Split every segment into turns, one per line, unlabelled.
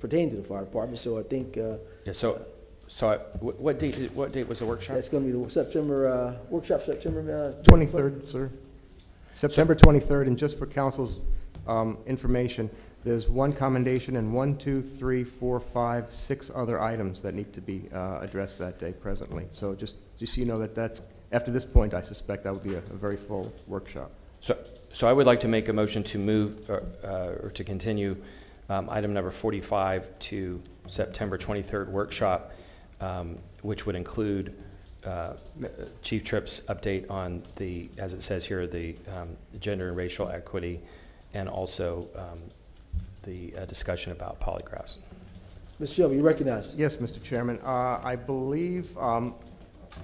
pertaining to the fire department, so I think uh,
Yeah, so, so I- wh- what date, did- what date was the workshop?
that's going to be the September, uh, workshop September. uh,
23rd, sir. September 23rd, and just for council's um, information, there's one commendation and one, two, three, four, five, six other items that need to be uh, addressed that day presently. So just, just so you know that that's, after this point, I suspect that would be a a very full workshop.
So, so I would like to make a motion to move, or, uh, or to continue um, item number 45 to September 23rd workshop, um, which would include uh, Chief Tripp's update on the, as it says here, the um, gender and racial equity, and also um, the uh, discussion about polygraphs.
Mr. Shelby, you recognize?
Yes, Mr. Chairman. Uh, I believe, um,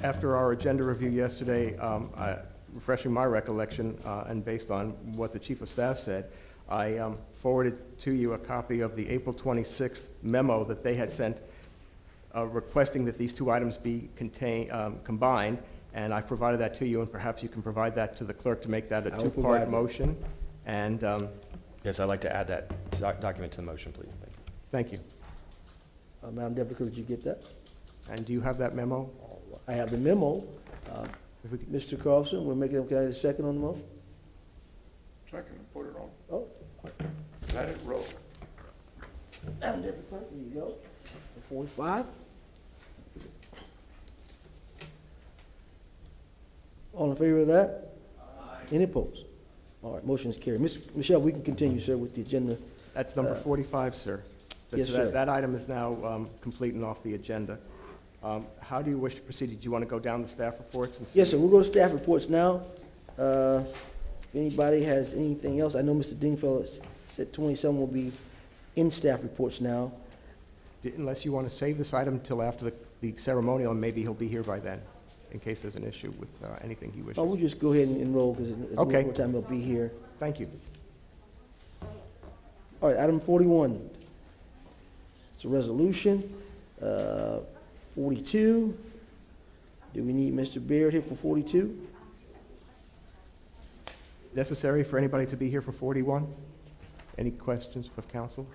after our agenda review yesterday, um, I- refreshing my recollection, uh, and based on what the Chief of Staff said, I um, forwarded to you a copy of the April 26th memo that they had sent uh, requesting that these two items be contain, um, combined, and I've provided that to you, and perhaps you can provide that to the clerk to make that a
I will provide
two-part
that.
motion. And, um,
Yes, I'd like to add that doc- document to the motion, please. Thank you.
thank you.
Uh, Madam Deputy Clerk, did you get that?
And do you have that memo?
I have the memo. Uh,
If we could-
Mr. Carlson, we're making, can I get a second on the motion?
Second, and put it on,
Oh,
let it roll.
Madam Deputy Clerk, there you go. Forty-five. All in favor of that? Any opposed? All right, motion is carried. Ms. Michelle, we can continue, sir, with the agenda.
That's number
Uh,
45, sir. That-
yes,
so that-
sir.
That item is now um, complete and off the agenda. Um, How do you wish to proceed? Do you want to go down the staff reports and see?
Yes, sir, we'll go to staff reports now. Uh, If anybody has anything else, I know Mr. Dingfellow s- said twenty-seven will be in staff reports now.
Unless you want to save this item till after the- the ceremonial, and maybe he'll be here by then, in case there's an issue with uh, anything he
Oh, we'll
wishes.
just go ahead and enroll, because
Okay.
more time he'll be here.
Thank you.
All right, item forty-one. It's a resolution. Uh, Forty-two. Do we need Mr. Baird here for forty-two?
Necessary for anybody to be here for 41? Any questions of council?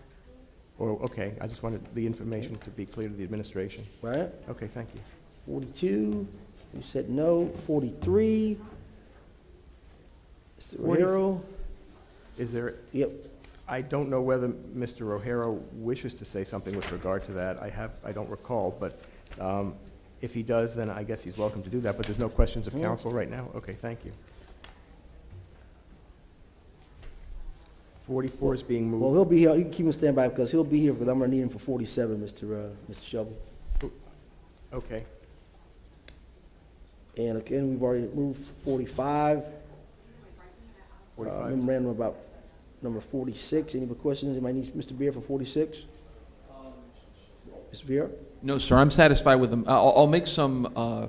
Or, okay, I just wanted the information to be clear to the administration.
All right,
Okay, thank you.
forty-two. You said no. Forty-three. Mr.
Forty-
Harrell.
Is there
Yep,
I don't know whether Mr. O'Hara wishes to say something with regard to that. I have, I don't recall, but um, if he does, then I guess he's welcome to do that, but there's no questions of
Hmm.
council right now? Okay, thank you. 44 is being
Well,
moved.
he'll be here, you can keep him standby, because he'll be here, because I'm gonna need him for forty-seven, Mr. uh, Mr. Shovel.
Okay,
And again, we've already moved forty-five. Uh,
45.
Memorandum about number forty-six, any more questions, anybody needs Mr. Beer for forty-six? Mr. Beer?
No, sir, I'm satisfied with them. I'll, I'll make some uh,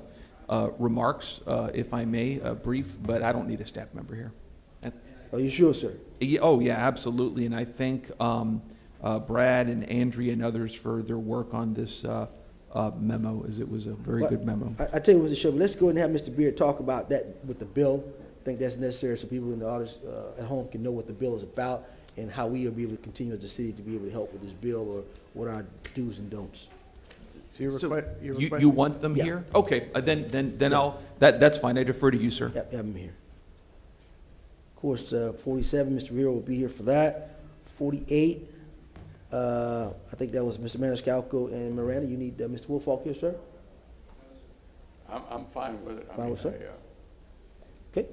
uh, remarks, uh, if I may, uh, brief, but I don't need a staff member here. And-
Are you sure, sir?
yeah, Oh, yeah, absolutely, and I thank um, uh, Brad and Andrea and others for their work on this uh, uh, memo, as it was a very
But-
good memo.
I, I tell you, Mr. Shovel, let's go ahead and have Mr. Beer talk about that with the bill. I think that's necessary, so people in the audience, uh, at home can know what the bill is about, and how we will be able to continue as a city to be able to help with this bill, or what our do's and don'ts.
So your
So,
request, your
You,
request,
you want them
Yeah.
here? Okay, uh, then, then, then I'll, that, that's fine, I defer to you, sir.
Yep, have him here. Of course, uh, forty-seven, Mr. Rivera will be here for that. Forty-eight, uh, I think that was Mr. Maniscalco and Miranda. You need uh, Mr. Wolfalk here, sir?
I'm, I'm fine with it. I
Fine
mean,
with it?
I, uh,
Okay.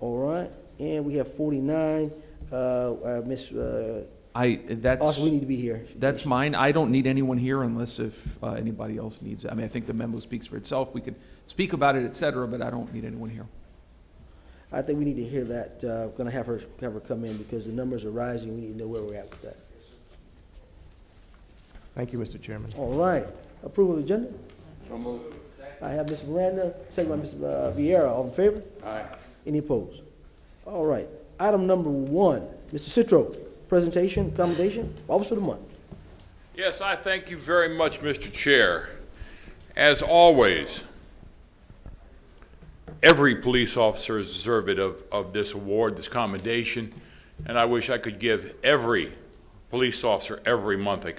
All right, and we have forty-nine, uh, uh, Ms., uh,
I, that's.
also, we need to be here.
That's mine. I don't need anyone here unless if uh, anybody else needs it. I mean, I think the memo speaks for itself. We could speak about it, et cetera, but I don't need anyone here.
I think we need to hear that. Uh, gonna have her, have her come in because the numbers are rising. We need to know where we're at with that.
thank you, Mr. Chairman.
All right, approval of the agenda.
So moved.
I have Ms. Miranda, second by Ms. Vieira. All in favor?
Aye.
Any opposed? All right, item number one, Mr. Citro, presentation, commendation, officer of the month.
Yes, I thank you very much, Mr. Chair. As always, every police officer is deserving of, of this award, this commendation, and I wish I could give every police officer every month a